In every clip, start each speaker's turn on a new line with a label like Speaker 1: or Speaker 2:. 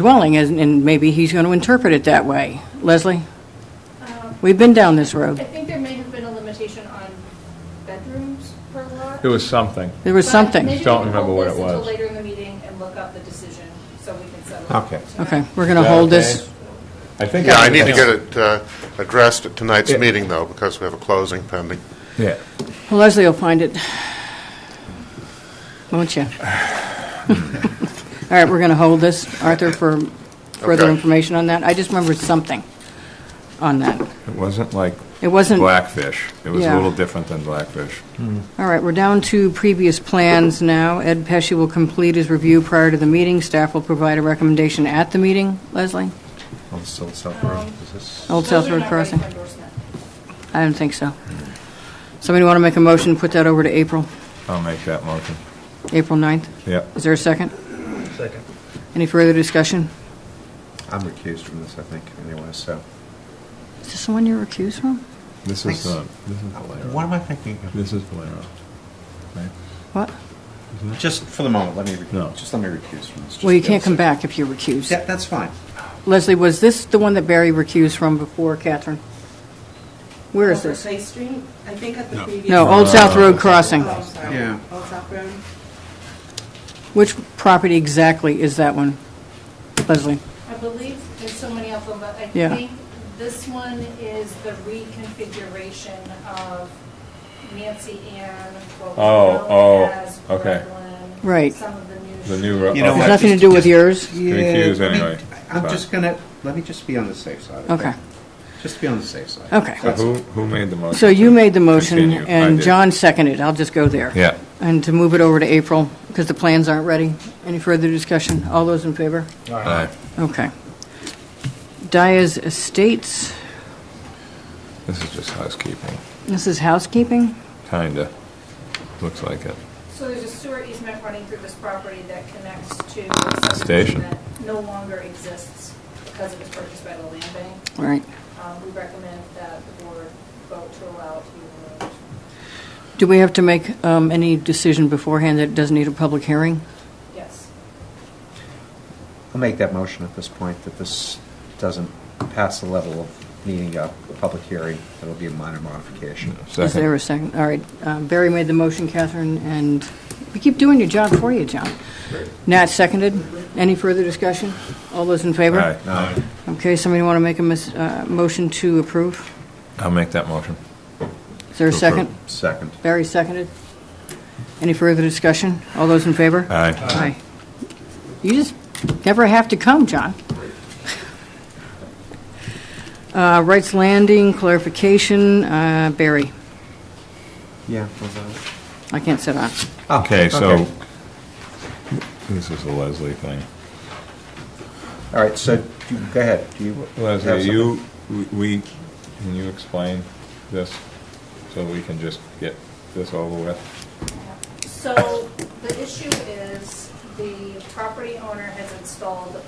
Speaker 1: dwelling, and and maybe he's going to interpret it that way. Leslie? We've been down this
Speaker 2: Um, I
Speaker 1: road.
Speaker 2: think there may have been a limitation on bedrooms per lot.
Speaker 3: It was something.
Speaker 1: There was
Speaker 2: But
Speaker 1: something.
Speaker 2: maybe
Speaker 3: Don't
Speaker 2: we can
Speaker 3: remember
Speaker 2: hold
Speaker 3: what
Speaker 2: this
Speaker 3: it
Speaker 2: until
Speaker 3: was.
Speaker 2: later in the meeting and look up the decision so we can settle. it
Speaker 4: Okay.
Speaker 2: tonight.
Speaker 1: Okay, we're going to
Speaker 3: Yeah,
Speaker 1: hold
Speaker 3: okay.
Speaker 1: this.
Speaker 3: I think.
Speaker 5: Yeah, I need to get it uh, addressed at tonight's
Speaker 4: Yeah.
Speaker 5: meeting, though, because we have a closing pending.
Speaker 4: Yeah.
Speaker 1: Well, Leslie will find it. Won't you? All right, we're going to hold this, Arthur, for further
Speaker 5: Okay.
Speaker 1: information on that. I just remembered something on that.
Speaker 4: It wasn't like
Speaker 1: It wasn't, all
Speaker 4: Blackfish. It was
Speaker 1: Yeah.
Speaker 4: a little different than Blackfish.
Speaker 1: right, we're down to previous plans now. Ed Pesci will complete his review prior to the meeting. Staff will provide a recommendation at the meeting. Leslie?
Speaker 4: Old South South Road,
Speaker 1: Um,
Speaker 4: is this?
Speaker 1: Old
Speaker 2: Those
Speaker 1: South
Speaker 2: are
Speaker 1: Road
Speaker 2: not ready for
Speaker 1: Crossing?
Speaker 2: endorsement.
Speaker 1: I don't think so. Somebody want to make a motion, put that over to April,
Speaker 4: I'll make that motion.
Speaker 1: April 9th?
Speaker 4: Yep.
Speaker 1: Is there a second? Second. Any further discussion?
Speaker 4: I'm recused from this, I think, anyway, so.
Speaker 1: Is this the one you're recused from?
Speaker 3: This is, uh, this is Valero.
Speaker 4: What am I thinking of?
Speaker 3: This is Valero. Right?
Speaker 1: What?
Speaker 6: Just for the moment, let me, rec-
Speaker 3: No.
Speaker 6: just let me recuse from this.
Speaker 1: Well, you
Speaker 6: Just give
Speaker 1: can't
Speaker 6: us
Speaker 1: come
Speaker 6: a-
Speaker 1: back if you're recused.
Speaker 6: Yeah, that's fine.
Speaker 1: Leslie, was this the one that Barry recused from before Catherine? Where is
Speaker 7: Over
Speaker 1: this?
Speaker 7: Clay Street, I think at the previous.
Speaker 1: No, Old South Road Crossing.
Speaker 7: Oh, sorry.
Speaker 6: Yeah.
Speaker 7: Old South Road.
Speaker 1: Which property exactly is that one? Leslie?
Speaker 2: I believe there's so many of them, but I
Speaker 1: Yeah.
Speaker 2: think this one is the reconfiguration of Nancy Ann, what
Speaker 3: Oh,
Speaker 2: was
Speaker 3: oh,
Speaker 2: known as
Speaker 3: okay.
Speaker 2: Redland,
Speaker 1: Right.
Speaker 2: Some of the new.
Speaker 3: The new road.
Speaker 6: You know
Speaker 1: Has
Speaker 6: what?
Speaker 1: nothing to do with yours?
Speaker 3: Recuse
Speaker 6: Yeah, let me-
Speaker 3: anyway.
Speaker 6: I'm
Speaker 3: Fine.
Speaker 6: just gonna, let me just be on the safe side.
Speaker 1: Okay.
Speaker 6: Just be on the safe side.
Speaker 1: Okay.
Speaker 3: So who, who made the motion?
Speaker 1: So you
Speaker 3: to
Speaker 1: made the motion,
Speaker 3: continue? I
Speaker 1: and
Speaker 3: did.
Speaker 1: John seconded. I'll just go there.
Speaker 4: Yeah.
Speaker 1: And to move it over to April, because the plans aren't ready. Any further discussion? All those in favor?
Speaker 4: Aye.
Speaker 1: Okay. Dyer's Estates,
Speaker 4: This is just housekeeping,
Speaker 1: this is housekeeping?
Speaker 4: kinda. Looks like it.
Speaker 2: So there's a sewer easement running through this property that connects to. a
Speaker 4: Station.
Speaker 2: That no longer exists because it was purchased by the land bank.
Speaker 1: All right.
Speaker 2: Um, We recommend that the board vote to allow it to be removed.
Speaker 1: Do we have to make um, any decision beforehand that doesn't need a public hearing?
Speaker 2: Yes.
Speaker 6: I'll make that motion at this point, that this doesn't pass the level of needing a public hearing. It'll be a minor modification.
Speaker 1: Is there a second? All right, um, Barry made the motion, Catherine, and we keep doing your job for you, John. Nat seconded. Any further discussion? All those in favor?
Speaker 4: Aye.
Speaker 6: No,
Speaker 1: Okay, somebody want to make a mis- uh, motion to approve?
Speaker 4: I'll make that motion.
Speaker 1: Is there a
Speaker 4: To approve.
Speaker 1: second?
Speaker 6: second.
Speaker 1: Barry seconded. Any further discussion? All those in favor?
Speaker 4: Aye.
Speaker 1: Aye. You just never have to come, John. Uh, Wright's Landing, clarification, uh, Barry.
Speaker 6: Yeah. we'll vote.
Speaker 1: I can't sit on.
Speaker 4: Okay, so,
Speaker 6: okay.
Speaker 4: this is a Leslie thing.
Speaker 6: All right, so, do- go ahead. Do you have
Speaker 4: Leslie,
Speaker 6: something?
Speaker 4: you, we- we, can you explain this so we can just get this over with?
Speaker 2: So the issue is the property owner has installed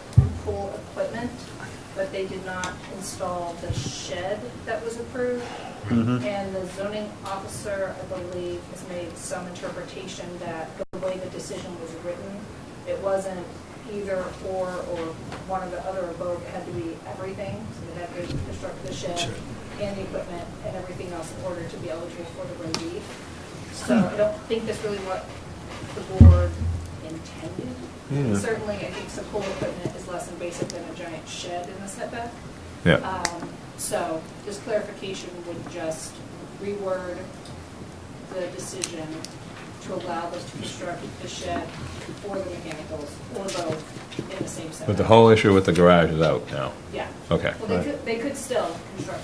Speaker 2: pool equipment, but they did not install the shed that was approved. And the zoning officer, I believe, has made some interpretation that the way the decision was written, it wasn't either or or one or the other or both. It had to be everything. So they had to construct the shed and the equipment and everything else in order to be eligible for the relief. So I don't think that's really what the board intended. Certainly, I think some pool equipment is less invasive than a giant shed in the setback.
Speaker 4: Yeah,
Speaker 2: Um, So this clarification would just reword the decision to allow us to construct the shed or the mechanicals or both in the same setback.
Speaker 4: but the whole issue with the garage is out now.
Speaker 2: Yeah.
Speaker 4: Okay.
Speaker 2: Well, they
Speaker 4: right.
Speaker 2: could, they could still construct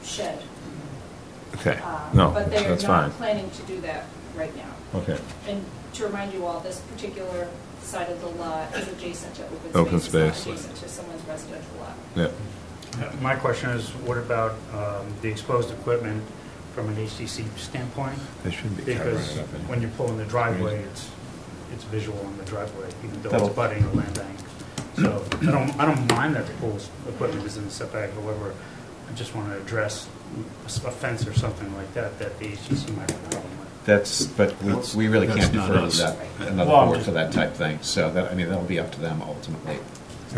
Speaker 2: the shed.
Speaker 4: Okay,
Speaker 2: um,
Speaker 4: no,
Speaker 2: But they are
Speaker 4: that's
Speaker 2: not
Speaker 4: fine.
Speaker 2: planning to do that right now.
Speaker 4: Okay,
Speaker 2: And to remind you all, this particular side of the lot is adjacent to
Speaker 4: Open
Speaker 2: open space. It's
Speaker 4: space.
Speaker 2: not adjacent to someone's residential lot.
Speaker 4: yeah.
Speaker 8: My question is, what about um, the exposed equipment from an HTC standpoint?
Speaker 4: They should be covering
Speaker 8: Because
Speaker 4: it up. in-
Speaker 8: when you pull in the driveway, it's, it's visual in the driveway, even though
Speaker 6: That'll-
Speaker 8: it's butting a land bank. So I don't, I don't mind that the pool's equipment is in the setback, however, I just want to address a s- a fence or something like that, that the HTC might have a problem with.
Speaker 6: That's, but we, we really
Speaker 9: That's
Speaker 6: can't
Speaker 9: not
Speaker 6: defer
Speaker 9: us.
Speaker 6: to that, another
Speaker 8: Well, I'm
Speaker 6: board
Speaker 8: just-
Speaker 6: for that type thing. So that, I mean, that'll be up to them ultimately.